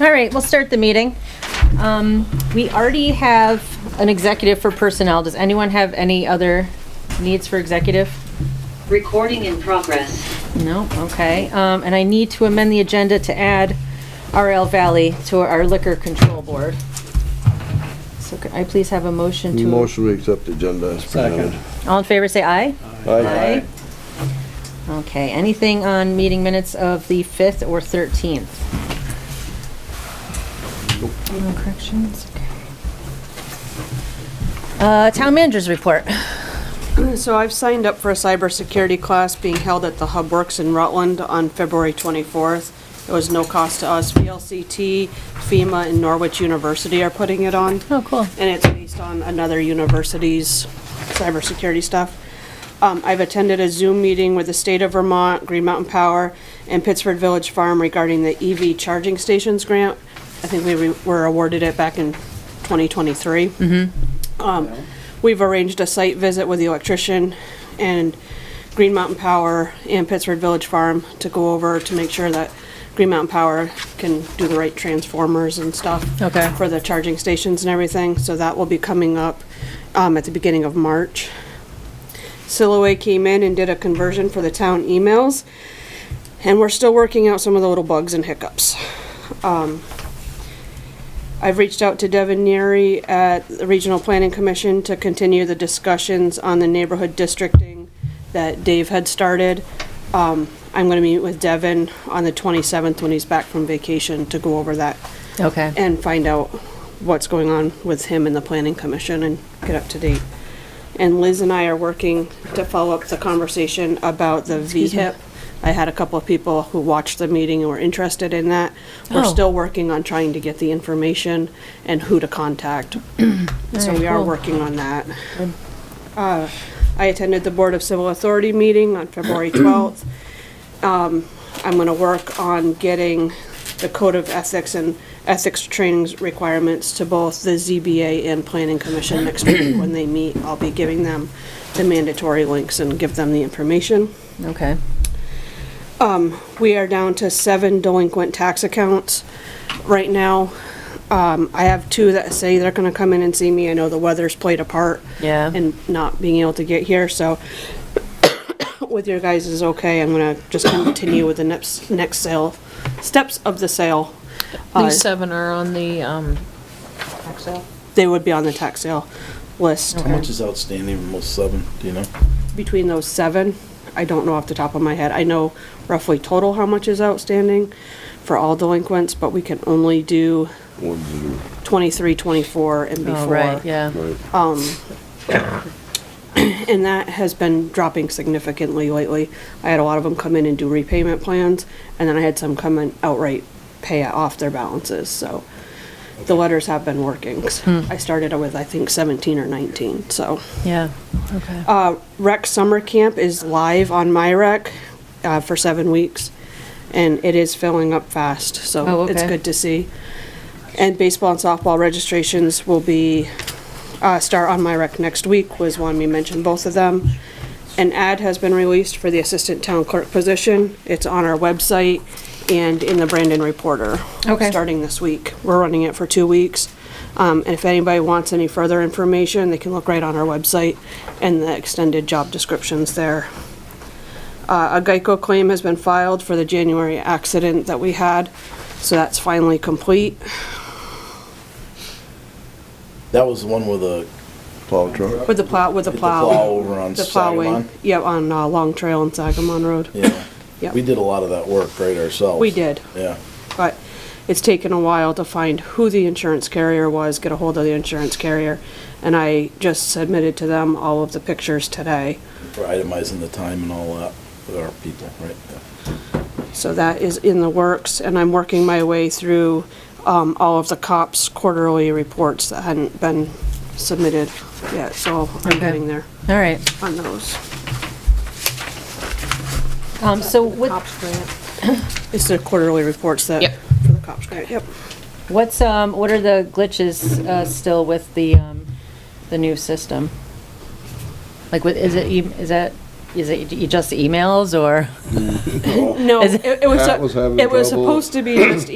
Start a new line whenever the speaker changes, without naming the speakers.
All right, we'll start the meeting. Um, We already have an executive for personnel. Does anyone have any other needs for executive?
Recording in progress.
No, okay. Um, And I need to amend the agenda to add RL Valley to our liquor control board. So could I please have a motion to?
Motion we accept the agenda as presented.
All in favor, say aye.
Aye.
Okay, anything on meeting minutes of the 5th or 13th? No corrections? Okay. Uh, Town managers report.
So I've signed up for a cybersecurity class being held at the Hub Works in Rutland on February 24th. It was no cost to us. VLCT, FEMA, and Norwich University are putting it on.
Oh, cool.
And it's based on another university's cybersecurity stuff. Um, I've attended a Zoom meeting with the state of Vermont, Green Mountain Power, and Pittsford Village Farm regarding the EV charging stations grant. I think we re- were awarded it back in 2023.
Mm-hmm.
Um, We've arranged a site visit with the electrician and Green Mountain Power and Pittsford Village Farm to go over to make sure that Green Mountain Power can do the right transformers and stuff.
Okay.
For the charging stations and everything, so that will be coming up um, at the beginning of March. Silhouette came in and did a conversion for the town emails, and we're still working out some of the little bugs and hiccups. Um, I've reached out to Devin Neary at the Regional Planning Commission to continue the discussions on the neighborhood districting that Dave had started. Um, I'm gonna meet with Devin on the 27th when he's back from vacation to go over that
Okay.
and find out what's going on with him and the planning commission and get up to date. And Liz and I are working to follow up the conversation about the VHIP. I had a couple of people who watched the meeting and were interested in that. We're
Oh.
still working on trying to get the information and who to contact. So
right,
we are
cool.
working on that. Uh, I attended the Board of Civil Authority meeting on February 12th. I'm gonna work on getting the code of ethics and ethics trainings requirements to both the ZBA and planning commission next week when they meet. I'll be giving them the mandatory links and give them the information.
Okay.
We are down to seven delinquent tax accounts right now. Um, I have two that say they're gonna come in and see me. I know the weather's played a part.
Yeah.
And not being able to get here, so with your guys is okay. I'm gonna just continue with the next, next sale, steps of the sale. Uh,
These seven are on the, um,
They would be on the tax sale list.
How much is outstanding from those seven, do you know?
Between those seven, I don't know off the top of my head. I know roughly total how much is outstanding for all delinquents, but we can only do
One, zero.
23, 24, and before.
Oh, right, yeah.
And that has been dropping significantly lately. I had a lot of them come in and do repayment plans, and then I had some come in outright pay off their balances, so the letters have been working. I started with, I think, 17 or 19, so.
Hmm. Yeah. Okay.
Uh, Rec Summer Camp is live on MyRec uh, for seven weeks, and it is filling up fast,
Oh,
so it's
okay.
good to see. And baseball and softball registrations will be, uh, start on MyRec next week, was one we mentioned both of them. An ad has been released for the assistant town clerk position. It's on our website and in the Brandon Reporter.
Okay.
Starting this week. We're running it for two weeks. Um, and if anybody wants any further information, they can look right on our website and the extended job descriptions there. Uh, a Geico claim has been filed for the January accident that we had, so that's finally complete.
That was the one with the
Plow truck.
With the plow, with the
With the
plow.
plow over on
The plowing.
Sagamon?
Yep, on, uh, Long Trail and Sagamon Road.
yeah.
Yep.
We did a lot of that work right ourselves.
We did.
Yeah.
but it's taken a while to find who the insurance carrier was, get a hold of the insurance carrier, and I just submitted to them all of the pictures today.
For itemizing the time and all that with our people, right?
So that is in the works, and I'm working my way through um, all of the cops' quarterly reports that hadn't been submitted yet, so I'm
Okay.
getting there
All right.
on those.
Um, so what,
It's the quarterly reports that,
Yep.
for the cops grant, yep.
what's, um, what are the glitches, uh, still with the, um, the new system? Like, what, is it, e- is that, is it e- just emails or?
No,
Is
it
it-
it was,
Pat was having
it was
trouble.
supposed to be just